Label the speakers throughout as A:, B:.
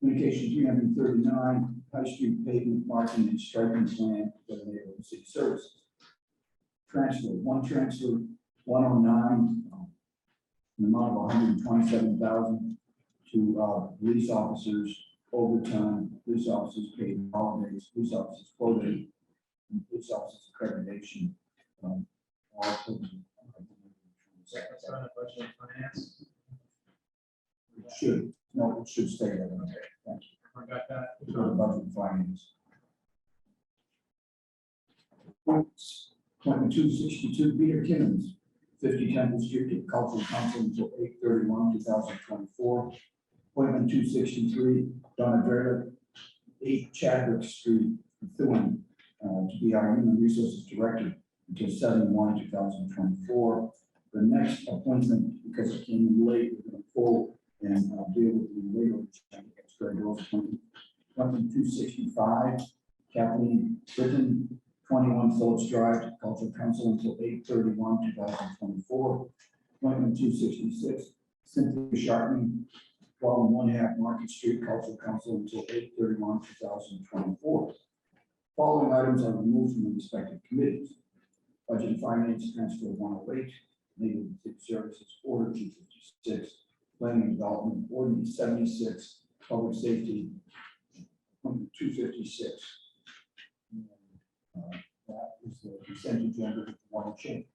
A: Communication three hundred and thirty-nine, High Street pavement marking and striping plan for the neighborhood city services. Transfer, one transfer, one oh nine, an amount of one hundred and twenty-seven thousand to uh, police officers overtime, police officers paid holidays, police officers quoted, and police officers accreditation. um, all put in.
B: That's not a budget of finance.
A: It Should, no, it should stay there. Thank you.
B: I forgot that.
A: It's not about the findings. Appointment two sixty-two, Peter Kimmons, fifty Temple Street, to Cultural Council until eight thirty-one, two thousand twenty-four. Appointment two sixty-three, Donna Verda, eight Chadwick Street, Methuen, uh, to be our Human Resources Director until seven-one, two thousand twenty-four. The next appointment, because it came in late, we're gonna pull and uh, deal with the legal. check. It's very well appointed. Appointment two sixty-five, Kathleen Britton, twenty-one Phillips Drive, to Cultural Council until eight thirty-one, two thousand twenty-four. Appointment two sixty-six, Cynthia Sharpman, twelve and one half Market Street, Cultural Council until eight thirty-one, two thousand twenty-four. Following items are removed from the respective committees. Budget and Finance, transfer one oh eight, Legal and City Services, order two fifty-six, Planning and Development, ordinance seventy-six, Public Safety, two fifty-six. uh, That is the consent agenda with one change.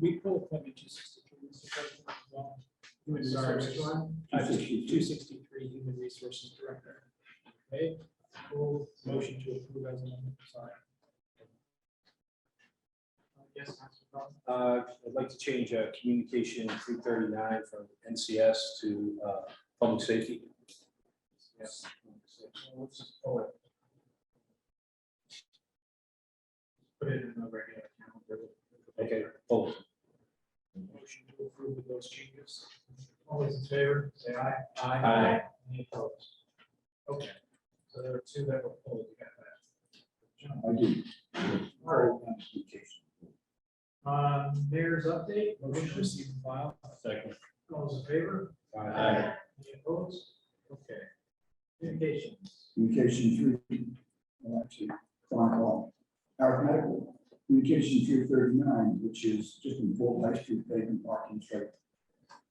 B: We pulled appointment two sixty-three, Mr. President, as well. Human
C: Sorry,
B: Resources.
C: which
B: Uh, Two sixty-three, Human Resources Director. Okay, full motion to approve as amended, sorry. Uh, Yes, Council Biden.
C: Uh, I'd like to change uh, communication three thirty-nine from NCS to uh, public safety. Yes.
B: Let's just pull it. Put it in the regular calendar.
C: Okay, both.
B: Motion to approve with those changes. All those in favor, say aye.
C: Aye.
B: Any opposed? Okay, so there are two that were pulled, you got that. John,
A: I do. All right, application.
B: Um, mayor's update, motion to receive and file.
C: Second.
B: All those in favor?
C: Aye.
B: Any opposed? Okay. Communications.
A: Communication three, well, actually, chronicle, arithmetical, communication three thirty-nine, which is just in full high street pavement parking strip.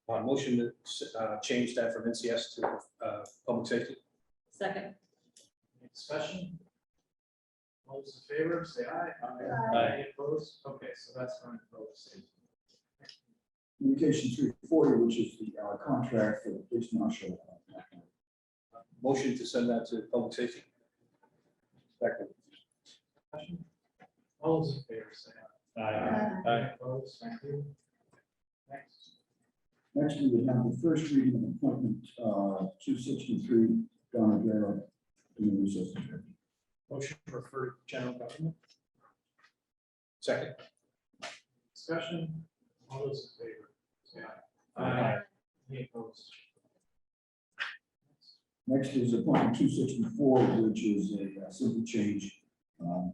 C: Uh, Motion to s- uh, change that from NCS to uh, public safety.
D: Second.
B: Any discussion? All those in favor, say aye.
D: Aye.
B: Any opposed? Okay, so that's on public safety.
A: Communication three forty, which is the uh, contract for the police marshal. uh,
C: Uh, Motion to send that to public safety. Second.
B: Discussion? All those in favor, say aye. Any opposed? Thank you. Next.
A: Next, we would have the first reading of appointment uh, two sixty-three, Donna Guerra, Human Resources Director.
B: Motion to refer to general government.
C: Second.
B: Discussion, all those in favor, say aye. Any opposed?
A: Next is appointment two sixty-four, which is a uh, simple change. um,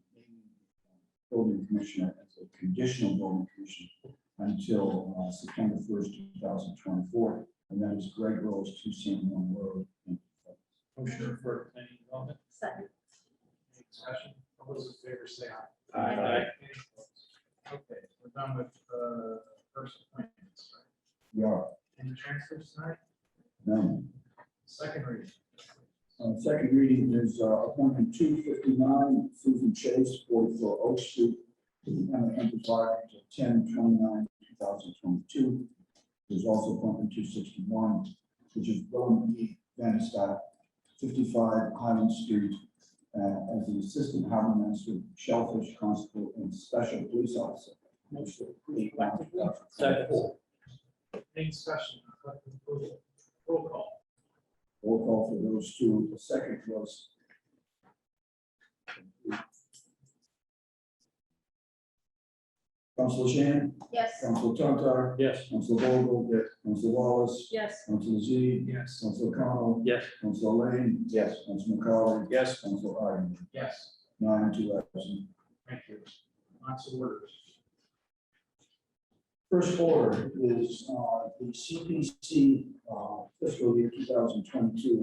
A: Building commissioner, as a conditional building commissioner until uh, September first, two thousand twenty-four. And that is Greg Rose, two San Juan Road.
B: Motion to refer to planning and development,
D: Second.
B: any discussion, all those in favor, say aye. Any opposed? Okay, we're done with, uh, first appointments, right?
A: We are,
B: Any transfers tonight?
A: no.
B: Second reading.
A: Uh, Second reading is uh, appointment two fifty-nine, Susan Chase, forty-four Oak Street, Lieutenant Enterprise, ten twenty-nine, two thousand twenty-two. There's also appointment two sixty-one, which is Roman E. Van Stapp, fifty-five Highland Street, uh, as an assistant harbor master, shellfish constable, and special police officer. Motion to approve.
B: Any discussion, collective approval, roll call,
A: Roll call for those two. The second was. Council Shan,
D: Yes.
A: Council Tontar,
C: Yes.
A: Council Vogel. Yes. Council Wallace,
D: Yes.
A: Council Z,
B: yes,
A: Council Connell.
C: Yes.
A: Council Lane. Yes. Council McCollum.
C: Yes.
A: Council Ivan,
B: yes,
A: nine to absent.
B: thank you. Lots of orders.
A: First order is uh, the CPC uh, fiscal year two thousand twenty-two